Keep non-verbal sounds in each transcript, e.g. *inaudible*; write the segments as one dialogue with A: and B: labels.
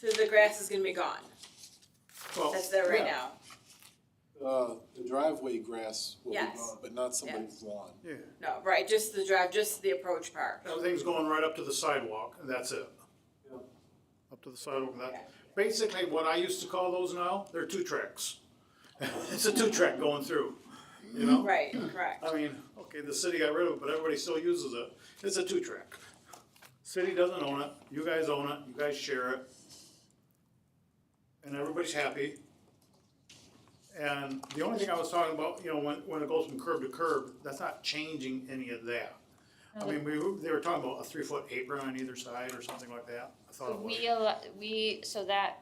A: So the grass is gonna be gone,
B: Well,
A: that's there right
B: yeah.
A: now.
C: Uh, the driveway grass will be
A: Yes.
C: gone, but not somebody's lawn.
B: Yeah,
A: No, right, just the drive, just the approach part.
B: everything's going right up to the sidewalk, and that's it.
C: Yeah.
B: Up to the sidewalk, and that, basically what I used to call those now, they're two tracks. *laughs* It's a two track going through, you know?
A: Right, correct.
B: I mean, okay, the city got rid of it, but everybody still uses it. It's a two track. City doesn't own it, you guys own it, you guys share it. And everybody's happy. And the only thing I was talking about, you know, when, when it goes from curb to curb, that's not changing any of that. I mean, we, were- they were talking about a three foot apron on either side or something like that. I thought it was.
D: We, al- we, so that,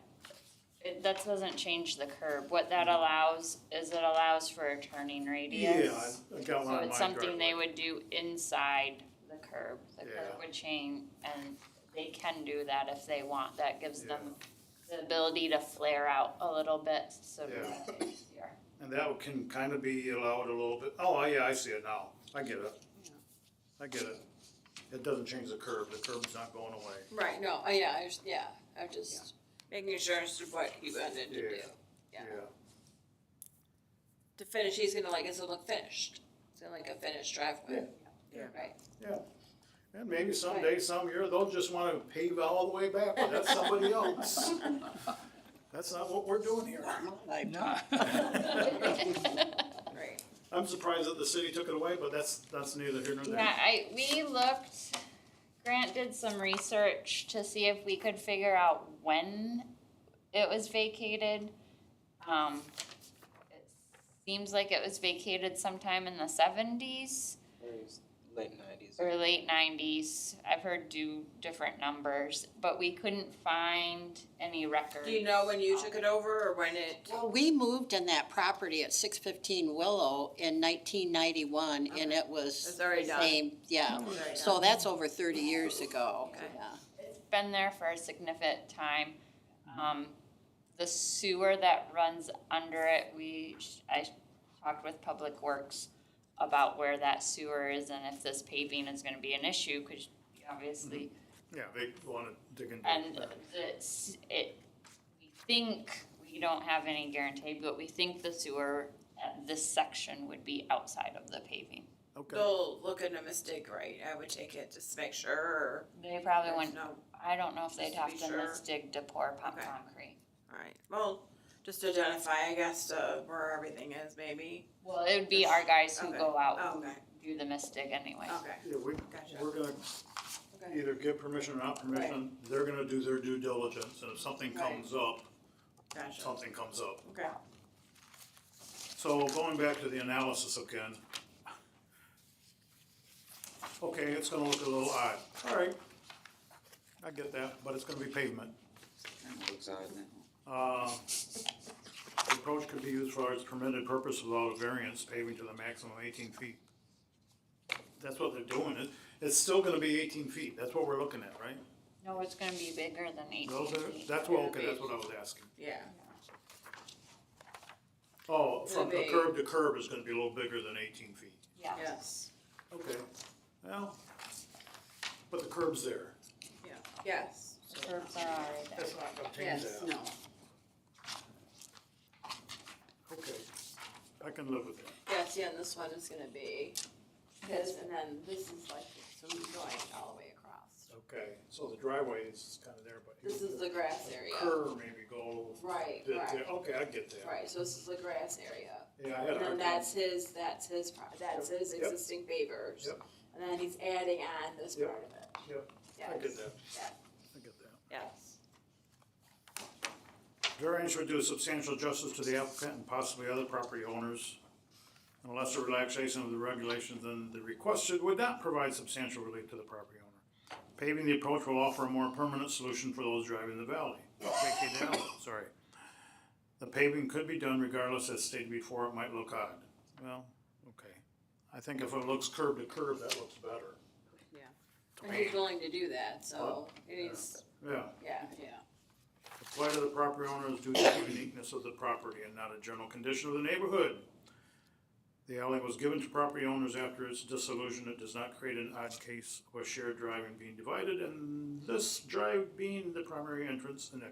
D: it- that doesn't change the curb. What that allows is it allows for a turning
B: Mm-hmm. Yeah,
D: radius.
B: I- I got one
D: So
B: on
D: it's
B: my
D: something they
B: driveway.
D: would do inside the curb. The curb
B: Yeah.
D: would change and they can do that if they want. That gives them
B: Yeah.
D: the ability to flare out a little bit, so to
B: Yeah.
D: make it easier.
B: And that can kind of be allowed a little bit, oh, yeah, I see it now, I get it. I get it. It doesn't change the curb, the curb's not going away.
A: Right, no, uh, yeah, I just, yeah, I'm just making sure as to what he wanted to do.
B: Yeah.
A: Yeah. To finish, he's gonna like, it's gonna look finished, it's gonna like a finished driveway.
B: Yeah.
A: Right,
B: Yeah, and maybe someday, some year, they'll just wanna pave all the way back, but that's
A: *laughs*
B: somebody else. That's not what we're doing here. *laughs*
D: *laughs*
A: right.
B: I'm surprised that the city took it away, but that's, that's neither here nor
D: Yeah,
B: there.
D: I, we looked, Grant did some research to see if we could figure out when it was vacated. Um, it seems like it was vacated sometime in the seventies
E: late nineties.
D: or late nineties. I've heard do different numbers, but we couldn't find any records.
A: Do you know when you took it over or when it,
F: Well, we moved in that property at six fifteen Willow in nineteen ninety-one, and it was.
A: It's already
F: the
A: done.
F: Same, yeah,
A: already
F: so that's over thirty years ago,
A: Okay.
F: yeah.
D: been there for a significant time. Um, the sewer that runs under it, we, I talked with Public Works about where that sewer is and if this paving is gonna be an issue, cause obviously,
B: Yeah, they wanna dig into
A: Mm-hmm.
D: and
B: it.
D: the it, we think, we don't have any guarantee, but we think the sewer at this section would be outside of the paving.
B: Okay,
A: they'll look at a mistake, right, I would take it just to make sure, or.
D: They probably wouldn't,
A: No,
D: I don't know if they'd
A: Just to
D: have
A: be
D: to
A: sure.
D: misdig to pour pump
A: Okay.
D: concrete.
A: alright, well, just to identify, I guess, uh, where everything is maybe.
D: Well, it would be our guys who
A: Okay.
D: go out
A: Oh,
D: who
A: okay.
D: do the mystic anyway.
A: Okay,
B: yeah, we,
A: Gotcha.
B: we're gonna
A: okay,
B: either give permission or not permission, they're gonna do their due diligence, and if something
A: Right.
B: comes up,
A: gotcha,
B: something comes up.
A: okay.
B: So going back to the analysis again. Okay, it's gonna look a little odd, alright. I get that, but it's gonna be pavement. Uh, the approach could be used for its permitted purpose without a variance, paving to the maximum eighteen feet. That's what they're doing, it, it's still gonna be eighteen feet, that's what we're looking at, right?
D: No, it's gonna be bigger than eighteen
B: Those are-
D: feet.
B: That's what, okay, that's what I was asking.
A: Yeah,
B: Oh, from the
A: It'll be-
B: curb to curb is gonna be a little bigger than eighteen feet.
D: Yeah,
A: yes,
B: Okay, well, but the curb's there.
A: yeah, yes.
D: the curbs are already there.
B: That's not gonna change
A: Yes,
B: that.
F: No,
B: Okay, I can live with that.
A: Yes, yeah, and this one is gonna be this, and then this is like, so we're going all the way across.
B: Okay, so the driveway is kinda there, but.
A: This is the grass area.
B: Curb maybe go.
A: Right,
B: did
A: right.
B: there. Okay, I get that.
A: Right, so this is the grass area.
B: Yeah, I had a
A: And then
B: hard time.
A: that's his, that's his, pro- that's his
B: Yep.
A: existing favors.
B: Yep.
A: And then he's adding on this
B: Yep.
A: part of it.
B: Yep,
A: Yes.
B: I get that,
A: Yeah,
B: I get that.
A: yes.
B: Variance would do substantial justice to the applicant and possibly other property owners. Unless a relaxation of the regulations then the requested would not provide substantial relief to the property owner. Paving the approach will offer a more permanent solution for those driving the valley, vacated alley, *coughs* sorry. The paving could be done regardless, as stated before, it might look odd. Well, okay. I think if it looks curb to curb, that looks better.
A: And he's willing to do that, so it is,
B: Yeah.
A: yeah,
B: apply to the property owner is due to the uniqueness of the property and not a general condition of the neighborhood. The alley was given to property owners after its dissolution, it does not create an odd case of a shared drive and being divided, and this drive being the primary entrance and exit.